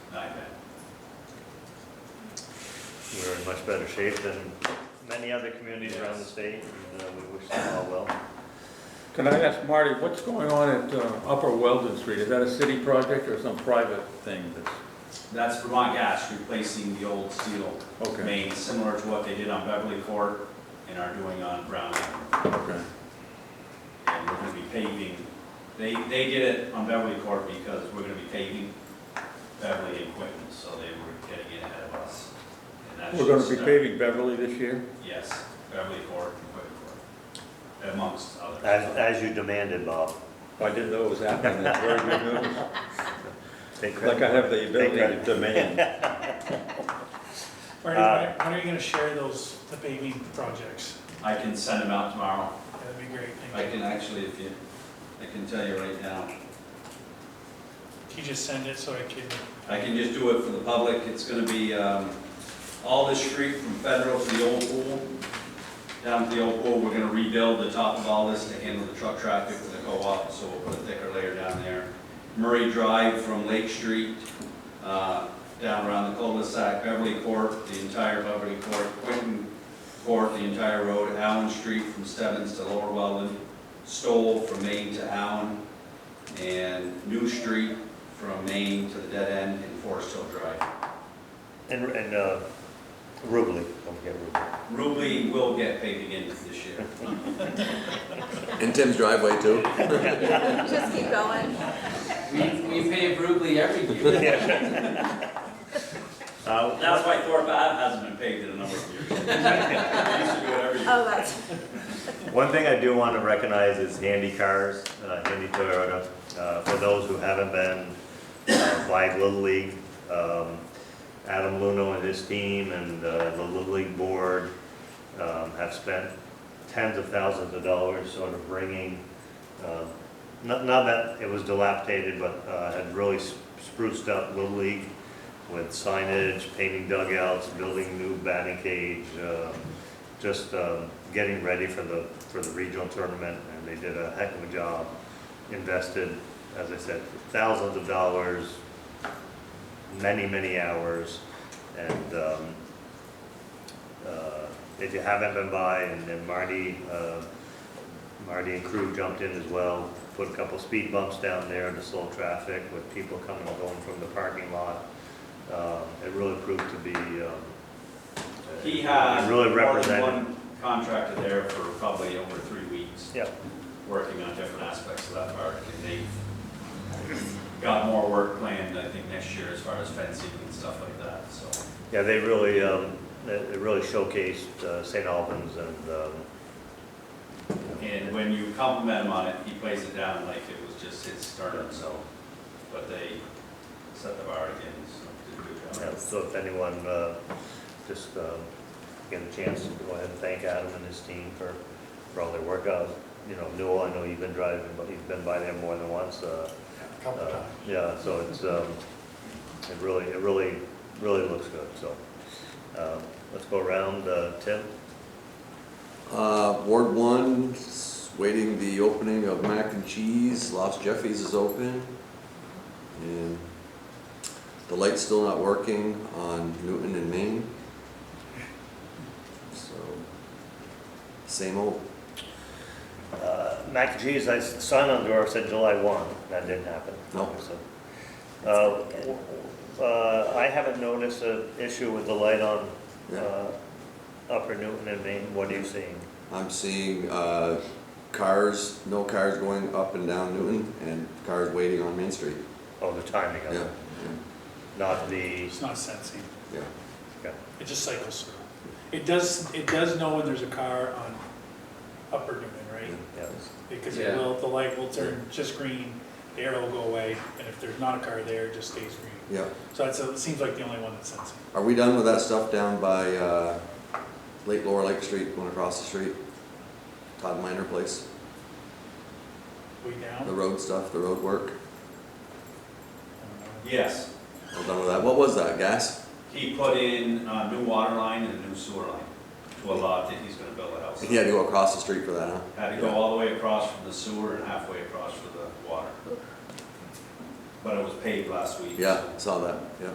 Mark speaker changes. Speaker 1: We're in much better shape than many other communities around the state, and uh, we wish them all well.
Speaker 2: Can I ask Marty, what's going on at uh, Upper Weldon Street? Is that a city project or some private thing that's,
Speaker 3: That's Vermont Gas replacing the old steel
Speaker 2: okay,
Speaker 3: main, similar to what they did on Beverly Court and are doing on Brown Avenue.
Speaker 2: okay.
Speaker 3: And we're gonna be paving, they, they did it on Beverly Court because we're gonna be paving Beverly and Quinton, so they were getting it ahead of us. And that
Speaker 2: We're gonna
Speaker 3: should
Speaker 2: be
Speaker 3: start-
Speaker 2: paving Beverly this year?
Speaker 3: Yes, Beverly Court and Quinton Court, amongst others.
Speaker 1: As, as you demanded, Bob.
Speaker 2: I didn't know it was happening, that's very good news.
Speaker 1: Take credit.
Speaker 2: Like I have the ability to
Speaker 1: Thank
Speaker 2: demand.
Speaker 4: Marty,
Speaker 1: Uh,
Speaker 4: when when are you gonna share those, the paving projects?
Speaker 3: I can send them out tomorrow.
Speaker 4: That'd be great,
Speaker 3: I
Speaker 4: thank you.
Speaker 3: can actually, if you, I can tell you right now.
Speaker 4: Can you just send it so I can,
Speaker 3: I can just do it for the public, it's gonna be, um, all this street from Federal to the old pool, down to the old pool, we're gonna rebuild the top of all this to handle the truck traffic for the co-op, so we'll put a thicker layer down there. Murray Drive from Lake Street, uh, down around the cul-de-sac, Beverly Court, the entire Beverly Court, Quinton Court, the entire road, Allen Street from Stebbins to Lower Welland, Stoll from Main to Allen, and New Street from Main to the dead end in Forest Hill Drive.
Speaker 1: And, and, uh, Rubley, don't forget Rubley.
Speaker 3: Rubley will get paving in this year.
Speaker 5: And Tim's driveway too.
Speaker 6: Just keep going.
Speaker 7: We, we pay Brugly every year.
Speaker 1: Uh,
Speaker 3: That's why Thorpe Ave hasn't been paved in a number of years. We used to do it every year.
Speaker 6: Oh, that's,
Speaker 1: One thing I do want to recognize is Handy Cars, uh, Handy Toyota. Uh, For those who haven't been, uh, Flag Little League, um, Adam Luno and his team and uh, the Little League Board um, have spent tens of thousands of dollars sort of bringing, uh, not not that it was dilapidated, but uh, had really spruced up Little League with signage, painting dugouts, building new batting cage, um, just um, getting ready for the, for the regional tournament, and they did a heck of a job. Invested, as I said, thousands of dollars, many, many hours, and um, uh, if you haven't been by, and then Marty, uh, Marty and crew jumped in as well, put a couple speed bumps down there to slow traffic with people coming and going from the parking lot. Um, It really proved to be. um,
Speaker 3: He has
Speaker 1: it
Speaker 3: more
Speaker 1: really
Speaker 3: than
Speaker 1: represented.
Speaker 3: one contractor there for probably over three weeks,
Speaker 1: Yeah,
Speaker 3: working on different aspects of that park. And they've got more work planned, I think, next year as far as fencing and stuff like that, so.
Speaker 1: yeah, they really, um, they they really showcased uh, St. Albans and, um,
Speaker 3: And when you compliment him on it, he plays it down like it was just his sternum, so, but they set the bar again, so did a
Speaker 1: yeah,
Speaker 3: good job.
Speaker 1: so if anyone, uh, just, um, get a chance to go ahead and thank Adam and his team for, for all their work out. You know, Newell, I know you've been driving, but you've been by there more than once, uh,
Speaker 4: couple
Speaker 1: Uh,
Speaker 4: times.
Speaker 1: Yeah, so it's, um, it really, it really, really looks good, so. um, Let's go around, uh, Tim,
Speaker 5: Uh, Ward one, s- waiting the opening of Mac and Cheese, Lost Jeffy's is open. And the light's still not working on Newton and Main. So, same old.
Speaker 1: Uh, Mac and Cheese, I s- signed on the door, said July 1, that didn't happen.
Speaker 5: No.
Speaker 1: So, uh, w- uh, I haven't noticed an issue with the light on
Speaker 5: Yeah.
Speaker 1: uh, Upper Newton and Main, what are you seeing?
Speaker 5: I'm seeing, uh, cars, no cars going up and down Newton and cars waiting on Main Street.
Speaker 1: Oh, the timing
Speaker 5: Yeah,
Speaker 1: of
Speaker 5: yeah,
Speaker 1: it, not the,
Speaker 4: it's not sensing,
Speaker 5: yeah.
Speaker 4: it just cycles through. It does, it does know when there's a car on Upper Newman, right?
Speaker 1: yeah.
Speaker 4: Because it
Speaker 7: Yeah.
Speaker 4: will, the light will turn just green, the arrow will go away, and if there's not a car there, it just stays green.
Speaker 5: Yeah.
Speaker 4: So that's, it seems like the only one that's sensing.
Speaker 5: Are we done with that stuff down by, uh, Lake Lower Lake Street, going across the street? Todd Minor Place,
Speaker 4: We
Speaker 5: the
Speaker 4: down?
Speaker 5: road stuff, the road work,
Speaker 3: Yes,
Speaker 5: all done with that? What was that, gas?
Speaker 3: he put in a new water line and a new sewer line to a lot that he's gonna build a house.
Speaker 5: He had to go across the street for that, huh?
Speaker 3: Had to go all the way across from the sewer and halfway across for the water. But it was paved last week. so-
Speaker 5: Yeah, saw that, yeah.